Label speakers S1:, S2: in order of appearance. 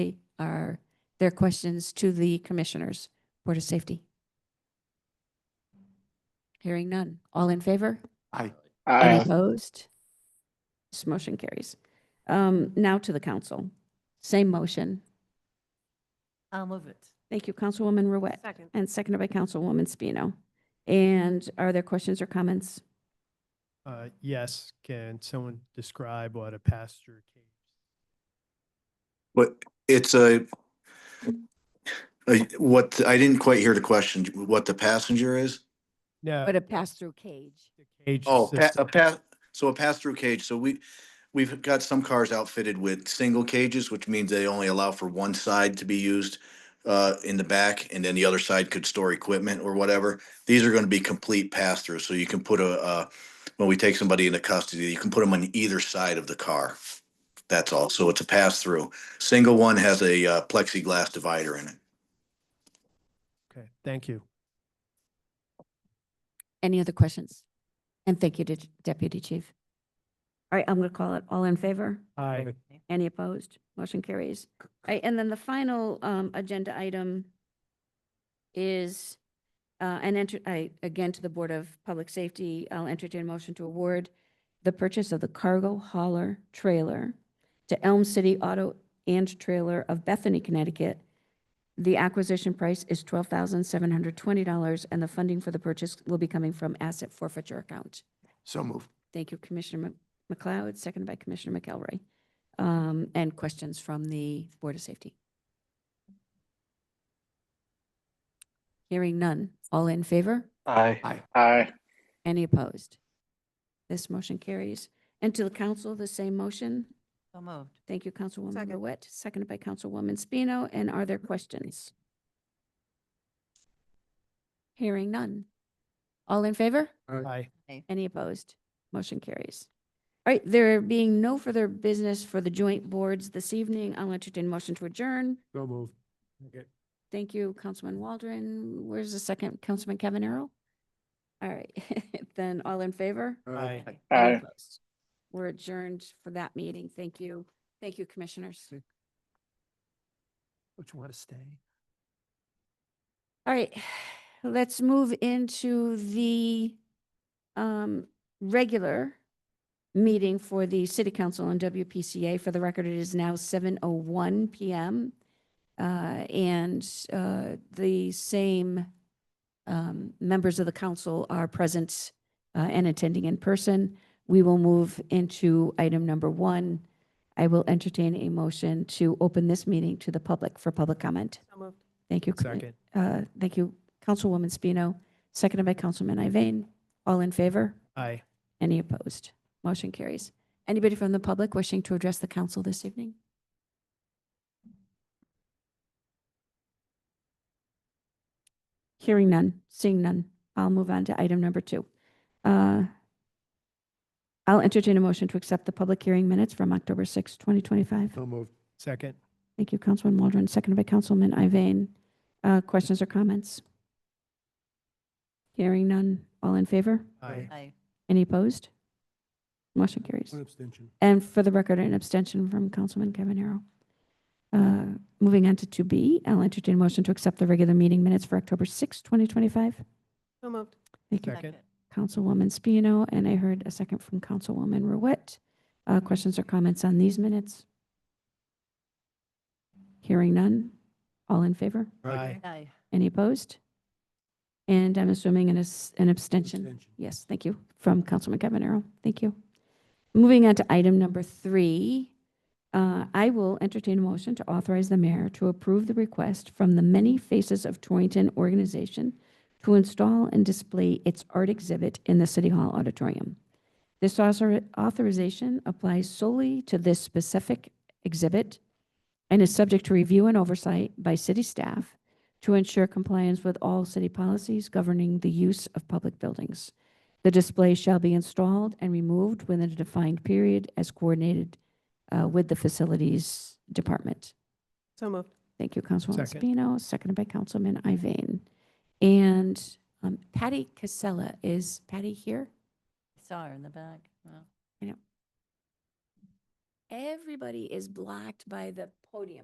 S1: are their questions to the Commissioners, Board of Safety? Hearing none. All in favor?
S2: Aye.
S1: Any
S3: Aye.
S1: opposed? This motion carries. Um, Now to the council. Same motion.
S4: I'll move it.
S1: Thank you, Councilwoman Ruette,
S4: Second.
S1: and seconded by Councilwoman Spino. And are there questions or comments?
S5: Uh, yes, can someone describe what a pasture cage?
S2: But it's a, a, what, I didn't quite hear the question, what the passenger is?
S5: No.
S1: But a pass-through cage.
S5: the cage
S2: Oh, pa- a
S5: system.
S2: pass, so a pass-through cage, so we, we've got some cars outfitted with single cages, which means they only allow for one side to be used uh, in the back, and then the other side could store equipment or whatever. These are gonna be complete pass-through, so you can put a, uh, when we take somebody into custody, you can put them on either side of the car. That's all, so it's a pass-through. Single one has a uh, plexiglass divider in it.
S5: Okay, thank you.
S1: Any other questions? And thank you, Det- Deputy Chief. All right, I'm going to call it. All in favor?
S5: Aye.
S1: Any opposed? Motion carries. All right, and then the final um, agenda item is, uh, an enter, I, again, to the Board of Public Safety, I'll entertain a motion to award the purchase of the cargo hauler trailer to Elm City Auto and Trailer of Bethany, Connecticut. The acquisition price is twelve thousand seven hundred twenty dollars, and the funding for the purchase will be coming from asset forfeiture account.
S2: So moved.
S1: Thank you, Commissioner Mc- McLeod, seconded by Commissioner McElroy. Um, And questions from the Board of Safety? Hearing none. All in favor?
S3: Aye. Aye.
S1: Any opposed? This motion carries. And to the council, the same motion.
S4: So moved.
S1: Thank you, Councilwoman
S4: Second.
S1: Lewitt, seconded by Councilwoman Spino. And are there questions? Hearing none. All in favor?
S5: Aye.
S1: Any opposed? Motion carries. All right, there being no further business for the joint boards this evening, I'll entertain a motion to adjourn.
S5: Go move.
S1: Thank you, Councilman Waldron. Where's the second, Councilman Cavanero? All right, then all in favor?
S5: Aye.
S1: Any
S3: Aye.
S1: opposed? We're adjourned for that meeting. Thank you. Thank you, commissioners.
S5: Would you want to stay?
S1: All right, let's move into the um, regular meeting for the City Council and WPCA. For the record, it is now 7:01 PM. uh, And uh, the same um, members of the council are present uh, and attending in person. We will move into item number one. I will entertain a motion to open this meeting to the public for public comment. Thank you. Commi-
S5: Second.
S1: uh, Thank you, Councilwoman Spino, seconded by Councilman Iveyne. All in favor?
S5: Aye.
S1: Any opposed? Motion carries. Anybody from the public wishing to address the council this evening? Hearing none, seeing none. I'll move on to item number two. Uh, I'll entertain a motion to accept the public hearing minutes from October 6, 2025.
S5: So moved. Second.
S1: Thank you, Councilman Waldron, seconded by Councilman Iveyne. Uh, Questions or comments? Hearing none. All in favor?
S5: Aye.
S4: Aye.
S1: Any opposed? Motion carries. And for the record, an abstention from Councilman Cavanero. Uh, Moving on to 2B, I'll entertain a motion to accept the regular meeting minutes for October 6, 2025.
S4: So moved.
S1: Thank you,
S5: Second.
S1: Councilwoman Spino, and I heard a second from Councilwoman Ruette. Uh, Questions or comments on these minutes? Hearing none. All in favor?
S5: Aye.
S4: Aye.
S1: Any opposed? And I'm assuming an as- an abstention.
S5: Abstention.
S1: Yes, thank you, from Councilman Cavanero. Thank you. Moving on to item number three, uh, I will entertain a motion to authorize the mayor to approve the request from the Many Faces of Torrington organization to install and display its art exhibit in the City Hall auditorium. This author- authorization applies solely to this specific exhibit and is subject to review and oversight by city staff to ensure compliance with all city policies governing the use of public buildings. The display shall be installed and removed within a defined period as coordinated uh, with the facilities department.
S4: So moved.
S1: Thank you, Councilwoman
S5: Second.
S1: Spino, seconded by Councilman Iveyne. And um, Patty Casella, is Patty here?
S4: Saw her in the back. Wow.
S1: Everybody is blocked by the podium.